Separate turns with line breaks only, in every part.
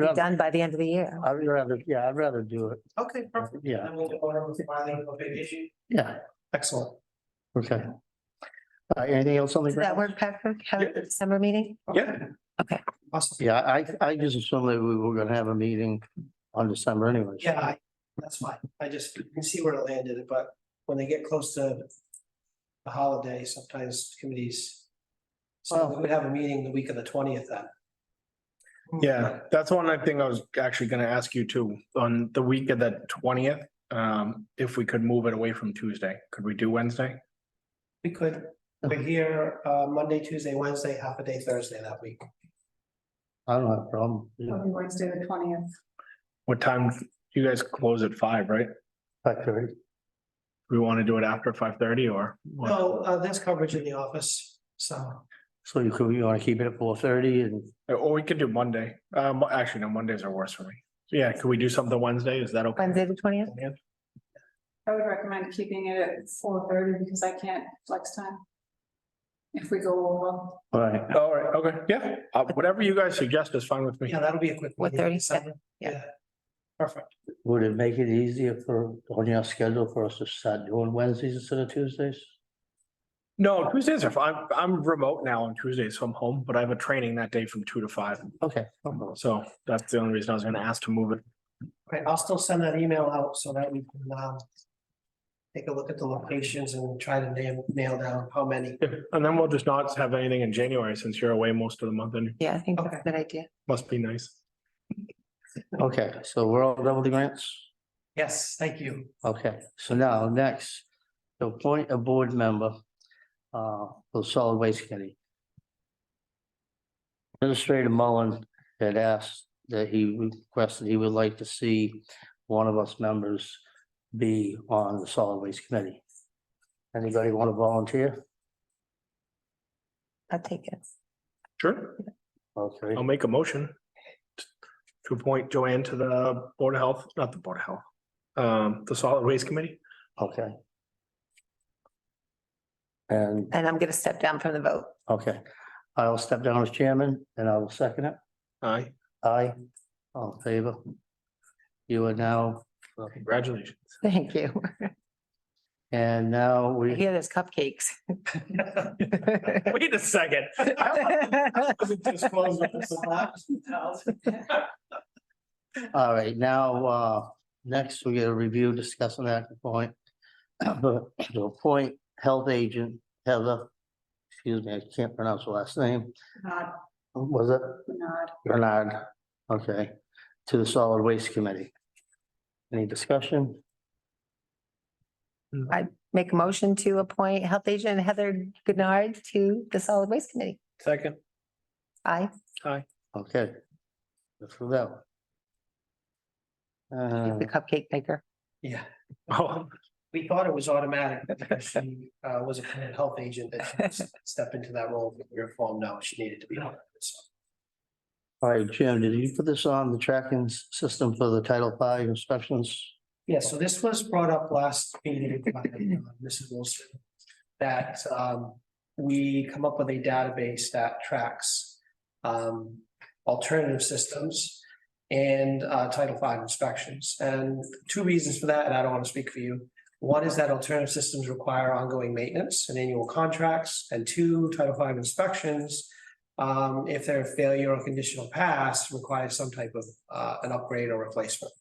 rather-
done by the end of the year.
I'd rather, yeah, I'd rather do it.
Okay, perfect.
Yeah.
Then we'll go on with filing a big issue.
Yeah,
Excellent.
okay. Uh, anything else on the
Did that
ground?
work, Patrick? Have
Yeah.
a December meeting?
Yeah.
Okay.
Awesome.
Yeah, I, I just assumed that we were gonna have a meeting on December anyways.
Yeah, I- that's fine. I just can see where it landed, but when they get close to the holiday, sometimes committees. So we would have a meeting the week of the twentieth then.
Yeah, that's one I think I was actually gonna ask you too, on the week of the twentieth, um, if we could move it away from Tuesday, could we do Wednesday?
We could, we're here uh Monday, Tuesday, Wednesday, half a day Thursday that week.
I don't have a problem.
It'll be Wednesday, the twentieth.
What time, you guys close at five, right?
Factory.
We wanna do it after five thirty or? what?
No, uh there's coverage in the office, so.
So you could, you wanna keep it at four thirty and
Or we could do Monday, um, actually, no, Mondays are worse for me. So, Yeah, could we do something Wednesday, is that okay?
Wednesday, the twentieth?
I would recommend keeping it at four thirty because I can't flex time. If we go over.
All right,
All right, okay, yeah, uh, whatever you guys suggest is fine with me.
Yeah, that'll be a quick. one.
4:30, yeah,
December.
yeah.
Perfect.
would it make it easier for, on your schedule for us to start doing Wednesdays instead of Tuesdays?
No, Tuesdays are fine, I'm remote now on Tuesdays, so I'm home, but I have a training that day from two to five.
Okay.
So that's the only reason I was gonna ask to move it.
Okay, I'll still send that email out so that we can um. Take a look at the locations and try to nail nail down how many.
And then we'll just not have anything in January since you're away most of the month and it
Yeah, I think that's
Okay.
a good idea.
must be nice.
Okay, so we're all done with the grants?
Yes, thank you.
Okay, so now next, to appoint a board member uh for the solid waste committee. Administrator Mullen had asked that he requested he would like to see one of us members be on the solid waste committee. Anybody want to volunteer?
I'll take it.
Sure,
Okay,
I'll make a motion to appoint Joanne to the Board of Health, not the Board of Health, um, the Solid Waste Committee.
okay. And,
And I'm gonna step down from the vote.
okay, I'll step down as chairman and I will second it.
Aye,
Aye, all in favor. You are now,
congratulations.
Thank you.
and now
I
we,
hear there's cupcakes.
Wait a second.
all right, now, uh, next we get a review, discuss and act point. To appoint health agent Heather, excuse me, I can't pronounce her last name,
Not,
was it
not.
Bernard? Okay, to the solid waste committee. Any discussion?
Make a motion to appoint Health Agent Heather Goodnard to the Solid Waste Committee.
Second,
Aye.
aye.
Okay. That's for that. one. Uh,
the cupcake maker.
Yeah,
Oh,
we thought it was automatic because she uh was a committed health agent that she stepped into that role with your form now. She needed to be on. it, so.
all right, Jim, did you put this on the tracking s- system for the Title V inspections?
Yeah, so this was brought up last meeting by uh, Mrs. Wilson. That um we come up with a database that tracks um alternative systems. And uh Title V inspections and two reasons for that, and I don't want to speak for you. One is that alternative systems require ongoing maintenance and annual contracts and two Title V inspections. Um if they're a failure or conditional pass requires some type of uh an upgrade or replacement.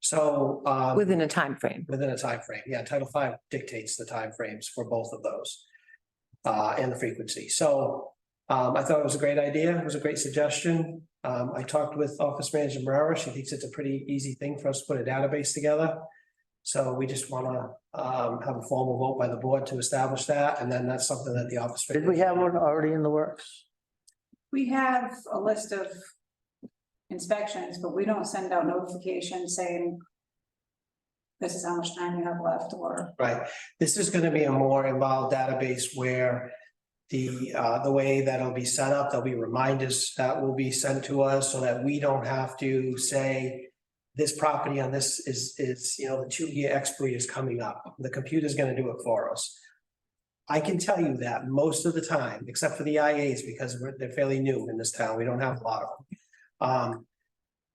So um.
Within a time frame.
Within a time frame, yeah, Title V dictates the timeframes for both of those. Uh, and the frequency, so, um, I thought it was a great idea, it was a great suggestion. Um, I talked with Office Manager Marrera, she thinks it's a pretty easy thing for us to put a database together. So we just wanna, um, have a formal vote by the board to establish that, and then that's something that the office.
Did we have one already in the works?
We have a list of inspections, but we don't send out notifications saying this is how much time you have left or
Right, this is gonna be a more involved database where the, uh, the way that'll be set up, there'll be reminders that will be sent to us so that we don't have to say this property on this is, is, you know, the two-year expiry is coming up. The computer's gonna do it for us. I can tell you that most of the time, except for the IAs, because we're, they're fairly new in this town, we don't have a lot of them. Um,